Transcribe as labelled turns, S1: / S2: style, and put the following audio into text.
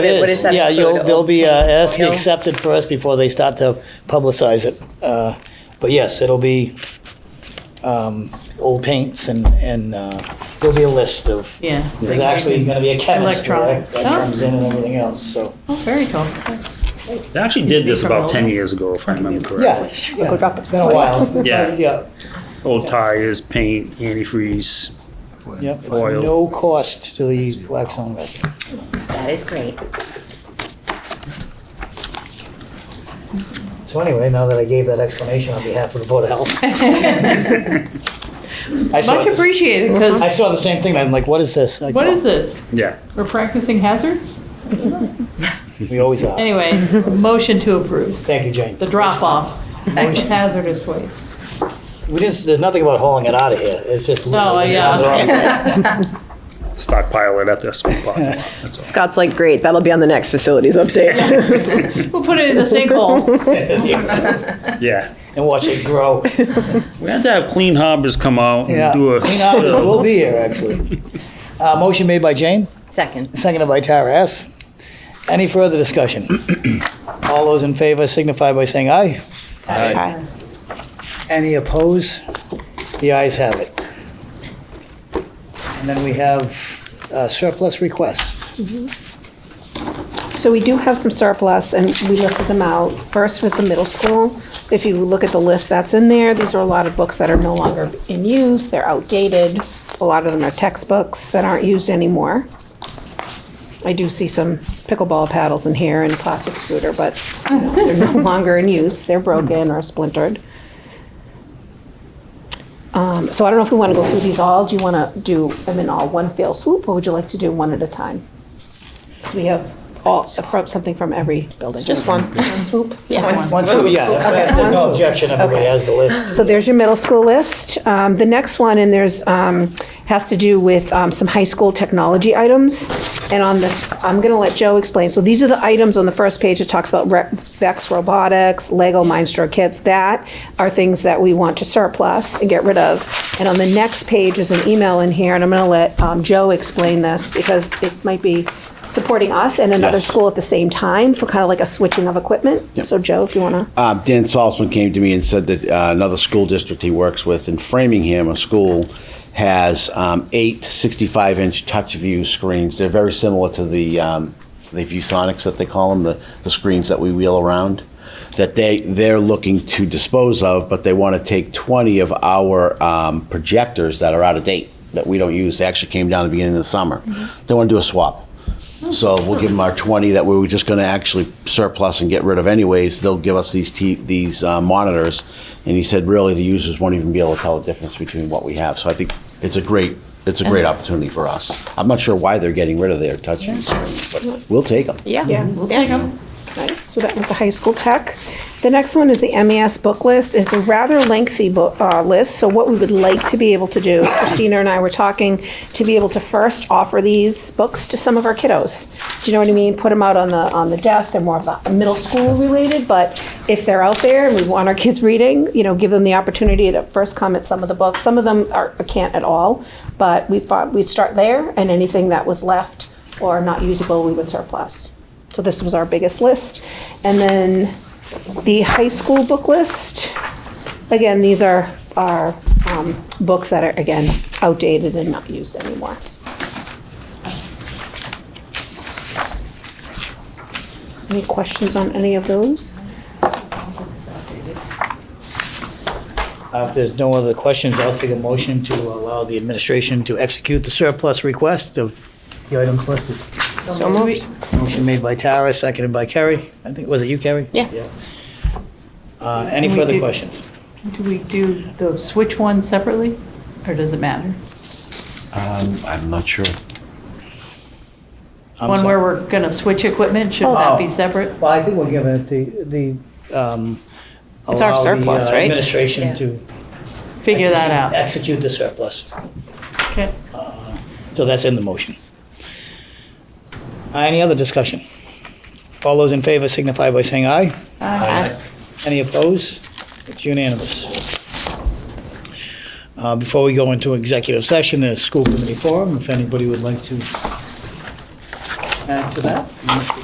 S1: It
S2: What
S1: is.
S2: is that Oh,
S1: Yeah, you'll,
S2: include?
S1: they'll be uh, asked,
S2: Oatmeal?
S1: accepted first before they start to publicize it. Uh, But yes, it'll be um, old paints and, and uh, there'll be a list of,
S3: Yeah.
S1: there's actually gonna be a chemist that
S3: Electronic.
S1: that comes in and everything else, so.
S3: Oh, very cool.
S4: They actually did this about
S3: Promote.
S4: 10 years ago, if I remember
S1: Yeah, yeah,
S4: correctly.
S1: it's been a while.
S4: Yeah.
S1: Yeah,
S4: Old tires, paint, antifreeze.
S1: yeah, it's
S4: Oil.
S1: no cost to the Blackstone resident.
S2: That is great.
S1: So anyway, now that I gave that explanation on behalf of the Board of Health. I saw
S3: Much
S1: this-
S3: appreciated, because
S1: I saw the same thing, and I'm like, what is this? Like,
S3: what is this?
S4: Yeah.
S3: We're practicing hazards?
S1: We always are.
S3: Anyway, motion to approve,
S1: Thank you, Jane.
S3: the drop-off of hazardous waste.
S1: We just, there's nothing about hauling it out of here. It's just.
S3: Oh, yeah.
S4: Stockpile it at this spot. That's all.
S5: Scott's like, great, that'll be on the next facilities update.
S3: We'll put it in the sinkhole.
S4: Yeah.
S1: And watch it grow.
S4: We had to have Clean Harbors come out and
S1: Yeah.
S4: do a.
S1: Clean Harbors will be here, actually. Uh, motion made by Jane,
S2: Second.
S1: seconded by Tara S. Any further discussion? All those in favor signify by saying aye.
S5: Aye.
S1: Any opposed? The ayes have it. And then we have uh, surplus requests.
S6: So we do have some surplus, and we listed them out. First with the middle school, if you look at the list that's in there, these are a lot of books that are no longer in use, they're outdated. A lot of them are textbooks that aren't used anymore. I do see some pickleball paddles in here and plastic scooter, but you know, they're no longer in use, they're broken or splintered. Um, So I don't know if we want to go through these all, do you want to do them in all one fell swoop, or would you like to do one at a time? Because we have all, from- something from every building.
S5: Just one.
S6: swoop?
S5: Yeah.
S1: Once, yeah, there's no objection, everybody has the list.
S6: So there's your middle school list. Um, The next one, and there's, um, has to do with um, some high school technology items. And on this, I'm going to let Joe explain. So these are the items on the first page. It talks about Re- Vex Robotics, Lego Mindstroke Kits. That are things that we want to surplus and get rid of. And on the next page is an email in here, and I'm going to let um, Joe explain this because it might be supporting us and another
S7: Yes.
S6: school at the same time for kind of like a switching of equipment. So Joe, if you want to.
S7: Uh, Dan Salzman came to me and said that uh, another school district he works with in Framingham, a school, has um, eight 65 inch touch view screens. They're very similar to the, um, the ViewSonics that they call them, the, the screens that we wheel around, that they, they're looking to dispose of, but they want to take 20 of our um, projectors that are out of date that we don't use. They actually came down at the beginning of the summer. They want to do a swap. So we'll give them our 20 that we were just going to actually surplus and get rid of anyways. They'll give us these t- these uh, monitors, and he said really the users won't even be able to tell the difference between what we have. So I think it's a great it's a great opportunity for us. I'm not sure why they're getting rid of their touch screens, but we'll take them.
S5: Yeah.
S6: Okay, So that was the high school tech. The next one is the MES book list. It's a rather lengthy book, uh, list, so what we would like to be able to do, Christina and I were talking, to be able to first offer these books to some of our kiddos. Do you know what I mean? Put them out on the, on the desk, they're more of a middle school related, but if they're out there and we want our kids reading, you know, give them the opportunity to first come at some of the books. Some of them are, can't at all, but we thought we'd start there, and anything that was left or not usable, we would surplus. So this was our biggest list. And then the high school book list. Again, these are, are um, books that are, again, outdated and not used anymore. Any questions on any of those?
S1: Uh, If there's no other questions, I'll take a motion to allow the administration to execute the surplus request of the items listed.
S5: So moved.
S1: Motion made by Tara, seconded by Kerry. I think, was it you, Kerry?
S5: Yeah.
S1: Uh, Any
S3: We
S1: further
S3: did-
S1: questions?
S3: Do we do the switch ones separately, or does it matter?
S7: Um, I'm not sure.
S1: I'm
S3: One
S1: sorry.
S3: where we're gonna switch equipment, should that be separate?
S1: Well, I think we're giving it the, the, um.
S5: It's our
S1: allow the,
S5: surplus,
S1: uh,
S5: right?
S1: Administration
S2: Yeah.
S1: to.
S3: Figure that
S1: execute-
S3: out.
S1: Execute the surplus. Uh,
S3: Okay.
S1: So that's in the motion. Uh, Any other discussion? All those in favor signify by saying aye.
S3: Aye.
S1: Any opposed? It's unanimous. Uh, Before we go into executive session, there's school committee forum, if anybody would like to add to that?